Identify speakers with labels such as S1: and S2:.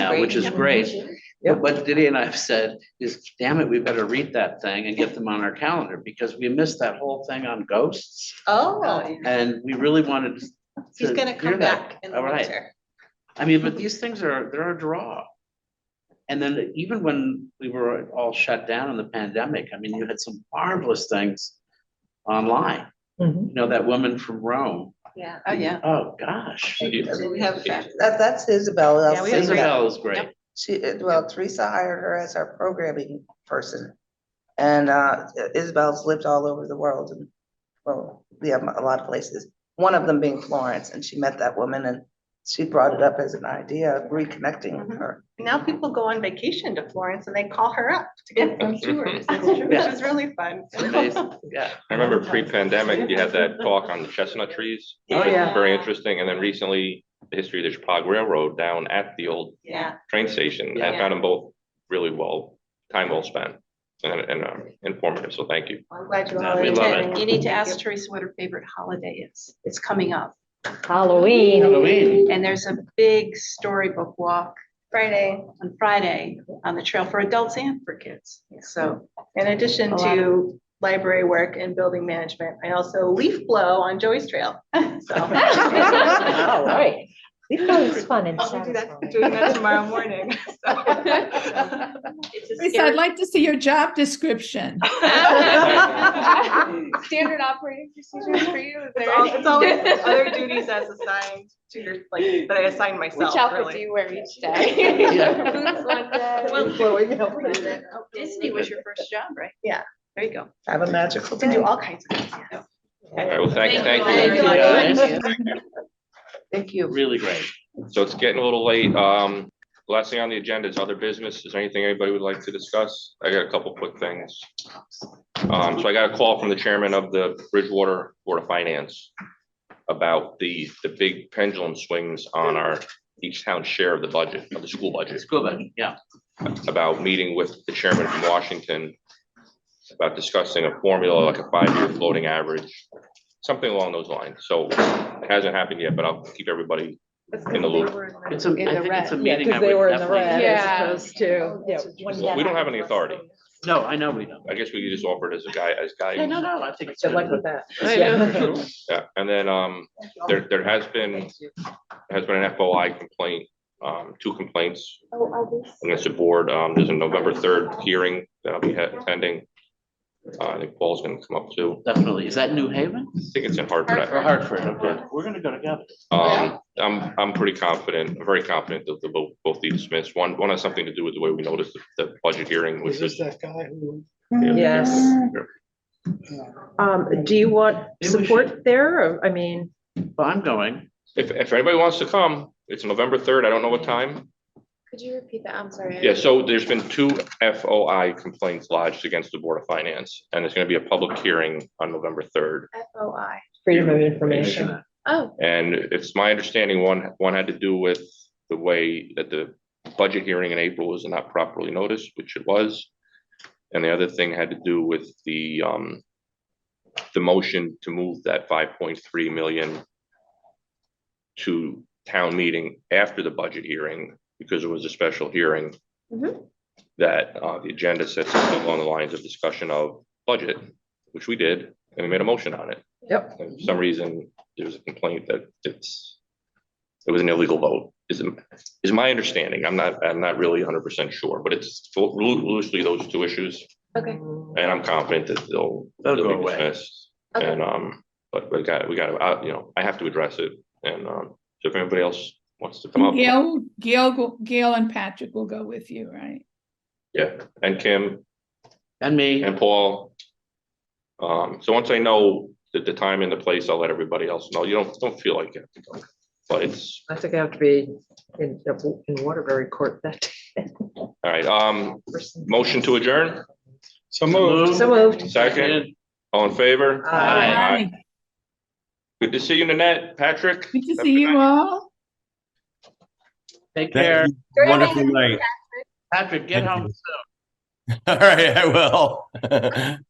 S1: now, which is great.
S2: Yep.
S1: But what Diddy and I have said is, damn it, we better read that thing and get them on our calendar because we missed that whole thing on ghosts.
S3: Oh,
S1: And we really wanted.
S3: he's
S1: to
S3: gonna
S1: hear
S3: come
S1: that.
S3: back in the
S1: All right.
S3: winter.
S1: I mean, but these things are, they're a draw. And then even when we were all shut down in the pandemic, I mean, you had some marvelous things online.
S4: Mm-hmm.
S2: Mhm.
S1: You know, that woman from Rome,
S3: Yeah.
S5: Oh, yeah.
S1: oh, gosh.
S3: We have that.
S2: That, that's Isabel.
S3: Yeah,
S2: I'll
S3: we have
S2: say that.
S1: Isabel is great.
S2: She, well, Teresa hired her as our programming person. And, uh, Isabel's lived all over the world and, well, we have a lot of places. One of them being Florence, and she met that woman and she brought it up as an idea of reconnecting
S3: Mm-hmm.
S2: with her.
S3: Now people go on vacation to Florence and they call her up to get some tours. It's true.
S1: Yeah.
S3: It was really fun.
S1: It's amazing. Yeah,
S6: I remember pre-pandemic, you had that talk on the chestnut trees. which
S2: Oh,
S6: was
S2: yeah.
S6: Very interesting. And then recently, the history of the Chicago Railroad down at the old
S3: Yeah,
S6: train station. I
S3: Yeah.
S6: found them both really well, time well spent and, and um, informative. So thank you.
S3: I'm glad you
S1: No,
S3: all
S1: we love
S3: attended.
S1: it.
S5: You need to ask Teresa what her favorite holiday is. It's coming up.
S7: Halloween.
S1: Halloween.
S5: And there's a big storybook walk
S3: Friday,
S5: on Friday on the trail for adults and for kids. So
S3: in addition
S5: A lot
S3: to library work and building management, I also leaf blow on Joey's Trail. So.
S2: Wow.
S7: Right. We've always fun and
S3: I'll do that,
S7: satisfying.
S3: doing that tomorrow morning.
S5: it's a
S8: Lisa, I'd
S5: scary-
S8: like to see your job description.
S7: Standard operating procedures for you.
S3: It's al- it's always other duties as assigned to your, like, that I assign myself, really.
S7: you wear each
S1: Yeah.
S5: Well,
S2: Flowing, you know.
S5: Disney was your first job, right?
S3: Yeah.
S5: There you go.
S2: Have a magical
S3: Can do
S2: day.
S3: all kinds of things. yeah.
S6: All right, well, thank,
S5: Thank you.
S6: thank you.
S3: Thank you.
S2: Thank you.
S1: Really great.
S6: So it's getting a little late. Um, last thing on the agenda is other business. Is there anything anybody would like to discuss? I got a couple quick things. Um, so I got a call from the chairman of the Bridgewater Board of Finance about the, the big pendulum swings on our, each town's share of the budget, of the school budget,
S1: It's good, but yeah.
S6: about meeting with the chairman from Washington about discussing a formula, like a five-year floating average, something along those lines. So it hasn't happened yet, but I'll keep everybody in the loop.
S1: It's a, I think it's a
S4: Yeah,
S1: meeting I
S4: because they were
S1: would
S4: in the red
S1: definitely.
S7: Yeah.
S4: as opposed to.
S6: Well, we don't have any authority.
S1: No, I know we don't.
S6: I guess we could just offer it as a guy, as guy.
S1: Yeah, no, no, I think it's.
S4: Good luck
S1: good.
S4: with that.
S1: I
S4: Yeah.
S1: know.
S6: Yeah, and then, um, there, there has been, has been an FOI complaint, um, two complaints
S1: Oh,
S6: against the board. Um, there's a November third hearing that I'll be he- attending. Uh, I think Paul's gonna come up too.
S1: Definitely. Is that New Haven
S6: I think it's in Hartford.
S1: or Hartford? Okay, we're gonna go together.
S6: Um, I'm, I'm pretty confident, I'm very confident that they'll both, both be dismissed. One, one has something to do with the way we noticed the, the budget hearing, which was.
S9: that guy who?
S1: Mm-hmm.
S4: Yes. Um, do you want
S1: Maybe we
S4: support there? Or, I mean,
S1: Well, I'm going.
S6: If, if anybody wants to come, it's November third. I don't know what time.
S7: Mm-hmm. Could you repeat that? I'm sorry.
S6: Yeah, so there's been two FOI complaints lodged against the Board of Finance, and it's gonna be a public hearing on November third.
S7: FOI.
S4: freedom of information.
S7: Oh,
S6: And it's my understanding, one, one had to do with the way that the budget hearing in April was not properly noticed, which it was. And the other thing had to do with the, um, the motion to move that five point three million to town meeting after the budget hearing, because it was a special hearing.
S7: Mhm.
S6: That, uh, the agenda said something along the lines of discussion of budget, which we did, and we made a motion on it.
S4: Yep.
S6: And For some reason, there was a complaint that it's, it was an illegal vote, is, is my understanding. I'm not, I'm not really hundred percent sure, but it's lo- loosely those two issues.
S7: okay.
S6: And I'm confident that they'll.
S1: They'll go
S6: be
S1: away.
S6: dismissed.
S7: Okay.
S6: And, um, but we got, we got, uh, you know, I have to address it. And, um, so if anybody else wants to come up.
S8: Gail, Gail, Gail and Patrick will go with you, right?
S6: Yeah, and Kim
S1: And me.
S6: and Paul. Um, so once I know the, the time and the place, I'll let everybody else know. You don't, don't feel like it. But it's,
S4: I think I have to be in, in Waterbury Court that day.
S6: all right, um, motion to adjourn,
S9: So moved.
S4: So moved.
S6: second, all in favor?
S4: Aye.
S8: Hi.
S6: Good to see you, Nanette, Patrick.
S8: Good to see you all.
S1: Take care.
S9: Wonderful night.
S1: Patrick, get home soon.
S9: All right, I will.